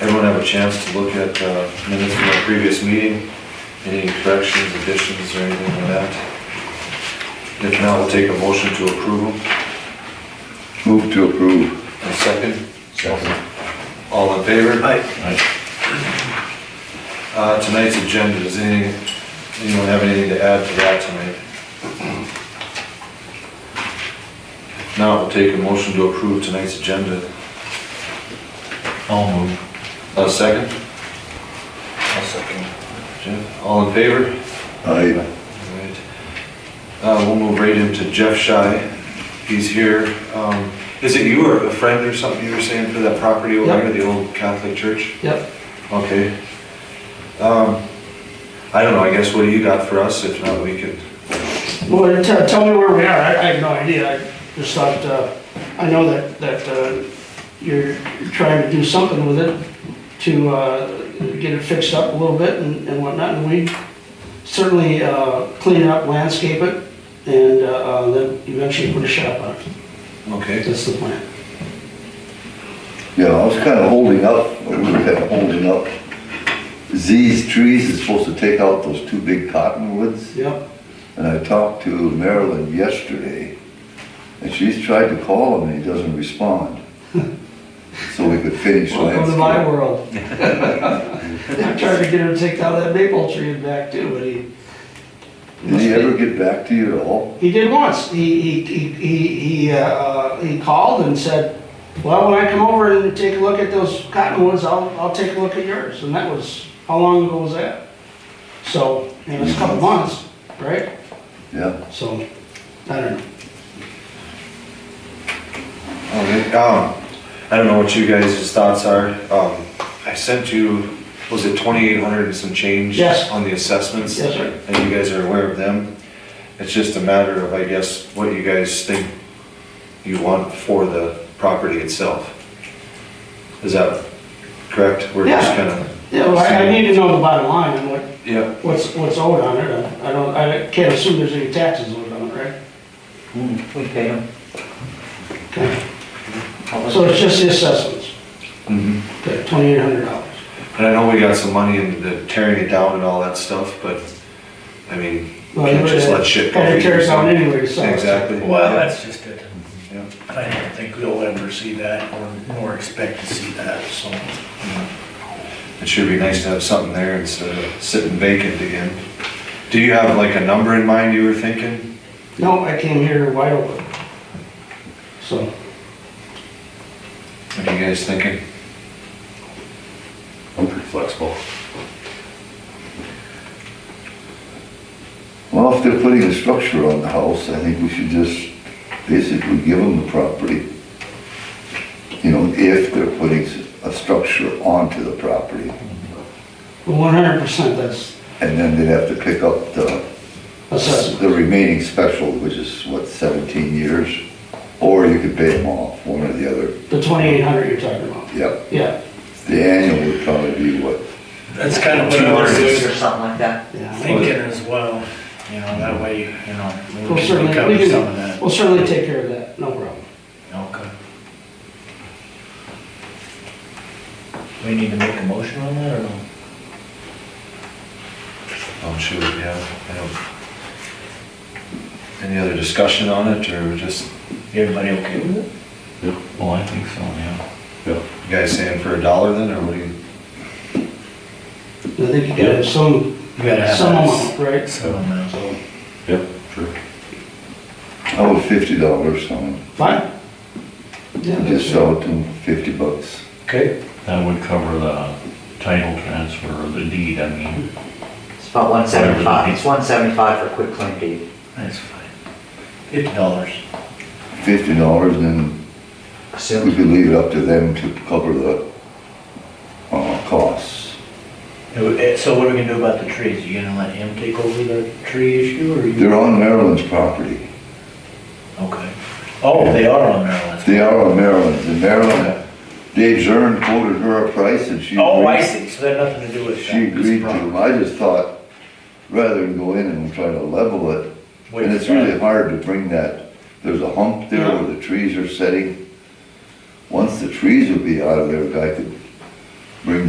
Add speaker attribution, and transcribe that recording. Speaker 1: Everyone have a chance to look at uh, minutes from our previous meeting? Any corrections, additions, or anything like that? If not, we'll take a motion to approve them.
Speaker 2: Move to approve.
Speaker 1: A second? Second. All in favor? Uh, Tonight's agenda, does any, anyone have anything to add to that tonight? Now, we'll take a motion to approve tonight's agenda.
Speaker 3: I'll move.
Speaker 1: A second?
Speaker 3: I'll second.
Speaker 1: Jim, all in favor?
Speaker 2: Aye.
Speaker 1: Alright. Uh, we'll move right into Jeff Shy. He's here. Um, is it you or a friend or something you were saying for that property over
Speaker 4: Yeah.
Speaker 1: there, the old Catholic church?
Speaker 4: Yep,
Speaker 1: Okay. Um, I don't know, I guess what do you got for us? If not, we could,
Speaker 4: well, tell, tell me where we are, I, I have no idea, I just thought, uh, I know that, that, uh, you're trying to do something with it to, uh, get it fixed up a little bit and, and whatnot, and we certainly, uh, clean it up, landscape it, and, uh, uh, then eventually put a shop on it,
Speaker 1: okay.
Speaker 4: that's the plan.
Speaker 2: Yeah, I was kind of holding up, we were kind of holding up. Z's Trees is supposed to take out those two big cottonwoods.
Speaker 4: Yep,
Speaker 2: And I talked to Marilyn yesterday, and she's tried to call him and he doesn't respond. So we could finish
Speaker 4: welcome to my
Speaker 2: landscape.
Speaker 4: world. I tried to get him to take down that maple tree and back too, but he.
Speaker 2: Did he ever get back to you at all?
Speaker 4: He did once. He, he, he, he, he, uh, uh, he called and said, well, when I come over and take a look at those cottonwoods, I'll, I'll take a look at yours. And that was, how long ago was that? So, it was a couple months, right?
Speaker 2: Yeah,
Speaker 4: So, I don't know.
Speaker 1: Okay, um, I don't know what you guys' thoughts are. Um, I sent you, was it twenty-eight hundred and some change?
Speaker 4: Yes.
Speaker 1: On the assessments?
Speaker 4: Yes, sir.
Speaker 1: And you guys are aware of them. It's just a matter of, I guess, what you guys think you want for the property itself. Is that correct? We're just
Speaker 4: Yeah.
Speaker 1: kinda.
Speaker 4: Yeah, well, I, I need to know the bottom line and what,
Speaker 1: Yeah,
Speaker 4: what's, what's owed on it. I I don't, I can't assume there's any taxes owed on it, right?
Speaker 3: We pay him.
Speaker 4: Okay. So it's just the assessments,
Speaker 1: mhm.
Speaker 4: okay, twenty-eight hundred dollars.
Speaker 1: and I know we got some money in the tearing it down and all that stuff, but, I mean,
Speaker 4: Well,
Speaker 1: can't
Speaker 4: you
Speaker 1: just
Speaker 4: would-
Speaker 1: let shit go.
Speaker 4: Kind of
Speaker 1: either,
Speaker 4: tears
Speaker 1: so-
Speaker 4: down anyway, so.
Speaker 1: Exactly.
Speaker 5: Well, that's just it.
Speaker 1: Yeah.
Speaker 5: I don't think we'll ever see that or nor expect to see that, so.
Speaker 1: It should be nice to have something there instead of sitting vacant again. Do you have like a number in mind you were thinking?
Speaker 4: No, I came here wide open. So,
Speaker 1: What are you guys thinking?
Speaker 2: I'm pretty flexible. Well, if they're putting a structure on the house, I think we should just basically give them the property. You know, if they're putting a structure onto the property.
Speaker 4: one hundred percent, that's
Speaker 2: And then they'd have to pick up the,
Speaker 4: assessment.
Speaker 2: the remaining special, which is what, seventeen years? Or you could pay them off, one or the other.
Speaker 4: The twenty-eight hundred you're talking about.
Speaker 2: Yep,
Speaker 4: Yeah,
Speaker 2: the annual would probably be what,
Speaker 5: That's kind of what I
Speaker 1: Two
Speaker 5: was
Speaker 1: years.
Speaker 3: Or something like that.
Speaker 4: yeah.
Speaker 5: thinking as well, you know, that way, you know,
Speaker 4: We'll
Speaker 5: maybe we can
Speaker 4: certainly,
Speaker 5: recover
Speaker 4: we
Speaker 5: some of
Speaker 4: can,
Speaker 5: that.
Speaker 4: we'll certainly take care of that, no problem.
Speaker 5: Okay.
Speaker 3: We need to make a motion on that or no?
Speaker 1: Oh shoot, yeah, I don't. Any other discussion on it or just
Speaker 3: Everybody okay with it? Well, I think so, yeah.
Speaker 1: you guys saying for a dollar then or what do you?
Speaker 4: I think you gotta have some,
Speaker 5: You gotta have
Speaker 4: some
Speaker 5: that.
Speaker 4: amount, right?
Speaker 5: Some amount.
Speaker 2: how about oh, fifty dollars, someone?
Speaker 4: Fine? Yeah,
Speaker 2: Just
Speaker 4: that's-
Speaker 2: sell it to them, fifty bucks.
Speaker 1: Okay.
Speaker 6: That would cover the title transfer or the deed, I mean.
Speaker 3: It's about one seventy-five. It's one seventy-five for quick claim deed.
Speaker 5: That's fine. Fifty dollars.
Speaker 2: Fifty dollars and then we
Speaker 3: Assume,
Speaker 2: could leave it up to them to cover the, uh, costs.
Speaker 5: So what are we gonna do about the trees? You gonna let him take over the tree issue or you?
Speaker 2: They're on Maryland's property.
Speaker 5: Okay. Oh, they are on Maryland.
Speaker 2: They are on Maryland's, and Maryland, Dave Zern quoted her a price and she.
Speaker 5: Oh, I
Speaker 2: agreed.
Speaker 5: see. So they had nothing to do with that.
Speaker 2: She agreed
Speaker 5: It's
Speaker 2: to
Speaker 5: wrong.
Speaker 2: them, I just thought, rather than go in and try to level it,
Speaker 5: Wait,
Speaker 2: and it's really hard to bring that, there's a hump there where the trees are setting. Once the trees would be out of there, a guy could bring